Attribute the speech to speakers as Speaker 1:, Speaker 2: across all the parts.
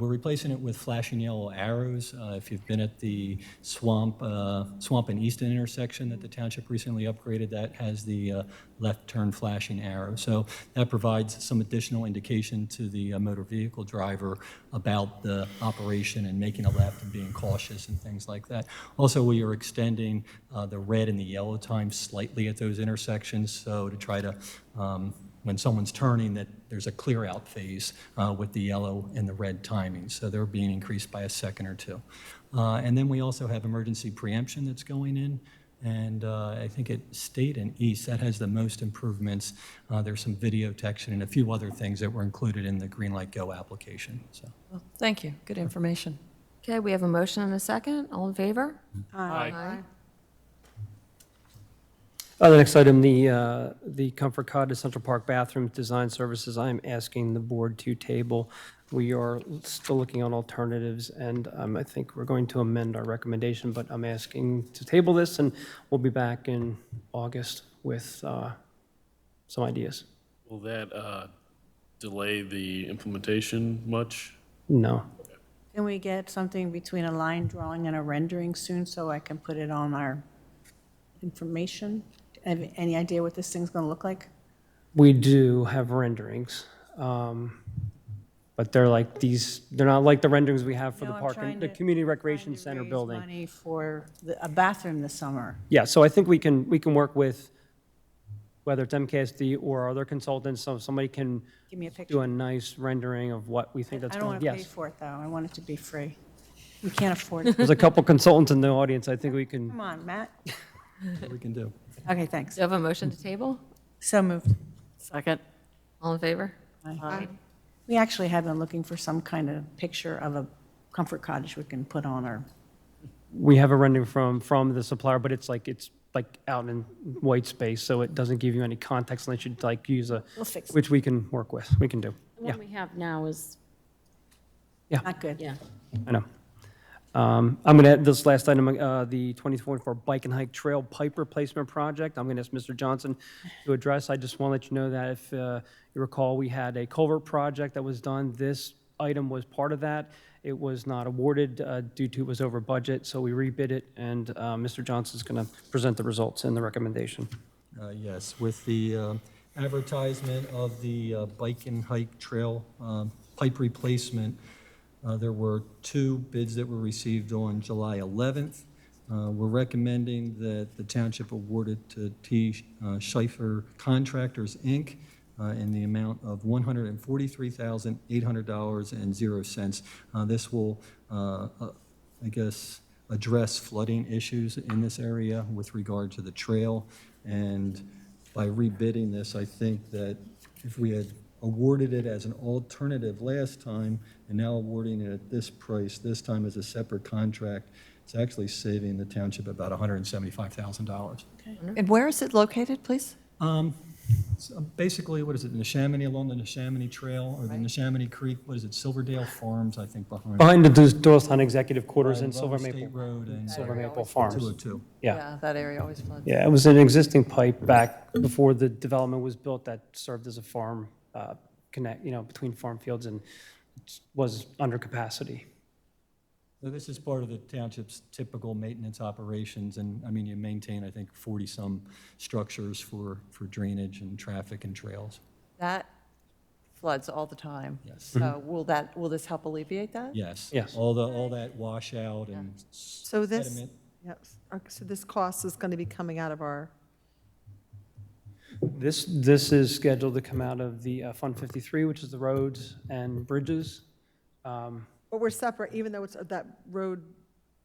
Speaker 1: We're replacing it with flashing yellow arrows. Uh, If you've been at the Swamp, uh, Swamp and Easton intersection that the township recently upgraded, that has the uh, left turn flashing arrow. So that provides some additional indication to the uh, motor vehicle driver about the operation and making a left and being cautious and things like that. Also, we are extending uh, the red and the yellow times slightly at those intersections, so to try to um, when someone's turning, that there's a clear-out phase uh, with the yellow and the red timing, so they're being increased by a second or two. Uh, And then we also have emergency preemption that's going in, and uh, I think at State and East, that has the most improvements. Uh, There's some video detection and a few other things that were included in the Green Light Go application, so.
Speaker 2: Well, Thank you, good information.
Speaker 3: Okay, we have a motion and a second. All in favor? Aye.
Speaker 4: Uh, The next item, the, uh, the Comfort Cottage Central Park Bathroom Design Services, I'm asking the board to table. We are still looking on alternatives, and um, I think we're going to amend our recommendation, but I'm asking to table this, and we'll be back in August with uh, some ideas.
Speaker 5: Will that uh, delay the implementation much?
Speaker 4: No.
Speaker 6: Can we get something between a line drawing and a rendering soon so I can put it on our information? Have any idea what this thing's gonna look like?
Speaker 4: We do have renderings, um, but they're like these, they're not like the renderings we have for the
Speaker 6: No, I'm
Speaker 4: park,
Speaker 6: trying
Speaker 4: and the
Speaker 6: to-
Speaker 4: Community Recreation
Speaker 6: Trying to
Speaker 4: Center
Speaker 6: raise
Speaker 4: building.
Speaker 6: Money for the- a bathroom this summer.
Speaker 4: Yeah, so I think we can, we can work with, whether it's MKSD or other consultants, so somebody can
Speaker 6: Give me a
Speaker 4: do
Speaker 6: picture.
Speaker 4: a nice rendering of what we think that's
Speaker 6: I don't
Speaker 4: going,
Speaker 6: wanna pay
Speaker 4: yes.
Speaker 6: for it, though. I want it to be free. We can't afford it.
Speaker 4: There's a couple consultants in the audience, I think we can,
Speaker 6: Come on, Matt.
Speaker 1: What we can do.
Speaker 6: Okay, thanks.
Speaker 3: Do you have a motion to table?
Speaker 6: So moved.
Speaker 2: Second.
Speaker 3: All in favor?
Speaker 6: We actually have been looking for some kind of picture of a comfort cottage we can put on our,
Speaker 4: we have a rendering from, from the supplier, but it's like, it's like out in white space, so it doesn't give you any context unless you like use a,
Speaker 6: we'll fix it.
Speaker 4: which we can work with, we can do.
Speaker 7: The
Speaker 4: Yeah,
Speaker 7: one we have now is,
Speaker 6: Not good.
Speaker 7: yeah.
Speaker 4: I know. Um, I'm going to add this last item, uh, the 2024 Bike and Hike Trail Pipe Replacement Project. I'm going to ask Mr. Johnson to address. I just want to let you know that if uh, you recall, we had a culvert project that was done. This item was part of that. It was not awarded uh, due to it was over budget, so we rebid it, and uh, Mr. Johnson's going to present the results and the recommendation.
Speaker 1: Uh, Yes, with the uh, advertisement of the uh, bike and hike trail um, pipe replacement, uh, there were two bids that were received on July 11th. Uh, We're recommending that the township award it to T. Schaefer Contractors, Inc., uh, in the amount of $143,800.00. Uh, This will, uh, uh, I guess, address flooding issues in this area with regard to the trail. And by rebidding this, I think that if we had awarded it as an alternative last time and now awarding it at this price, this time as a separate contract, it's actually saving the township about $175,000.
Speaker 2: And where is it located, please?
Speaker 1: Um, so Basically, what is it, Neshaminy, along the Neshaminy Trail or the Neshaminy Creek, what is it, Silverdale Farms, I think, behind.
Speaker 4: Behind the Doylestown Executive Quarters in
Speaker 1: behind
Speaker 4: Silver
Speaker 1: Rutland State
Speaker 4: Maple,
Speaker 1: Road and
Speaker 4: Silver Maple Farms.
Speaker 1: 202.
Speaker 4: Yeah.
Speaker 2: That area always floods.
Speaker 4: Yeah, it was an existing pipe back before the development was built that served as a farm uh, connect, you know, between farm fields and was under capacity.
Speaker 1: So this is part of the township's typical maintenance operations, and, I mean, you maintain, I think, 40-some structures for, for drainage and traffic and trails.
Speaker 2: That floods all the time.
Speaker 1: Yes.
Speaker 2: So will that, will this help alleviate that?
Speaker 1: Yes.
Speaker 4: Yes.
Speaker 1: All the, all that washout and
Speaker 8: So this,
Speaker 1: sediment.
Speaker 8: yep, our- so this cost is going to be coming out of our,
Speaker 4: This, this is scheduled to come out of the uh, Fund 53, which is the roads and bridges. Um,
Speaker 8: but we're separate, even though it's uh, that road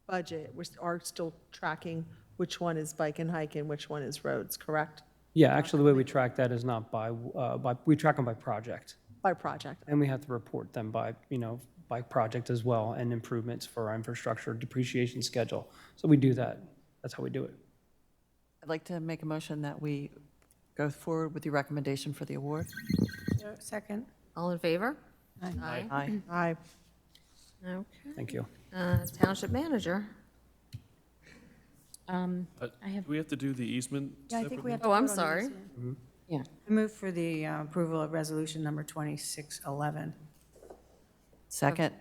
Speaker 8: budget, we are still tracking which one is bike and hike and which one is roads, correct?
Speaker 4: Yeah, actually, the way we track that is not by, uh, by, we track them by project.
Speaker 8: By project.
Speaker 4: And we have to report them by, you know, by project as well and improvements for our infrastructure depreciation schedule. So we do that. That's how we do it.
Speaker 2: I'd like to make a motion that we go forward with your recommendation for the award.
Speaker 6: Second?
Speaker 3: All in favor? Aye.
Speaker 2: Aye.
Speaker 8: I,
Speaker 3: Okay.
Speaker 4: Thank you.
Speaker 3: Uh, Township manager?
Speaker 7: Um,
Speaker 5: Uh,
Speaker 7: I have,
Speaker 5: Do we have to do the easement
Speaker 6: Yeah, I think
Speaker 5: separately?
Speaker 6: we have to
Speaker 3: Oh, I'm
Speaker 6: vote on this,
Speaker 3: sorry.
Speaker 6: yeah.
Speaker 7: yeah.
Speaker 6: I move for the uh, approval of resolution number 2611.
Speaker 2: Second?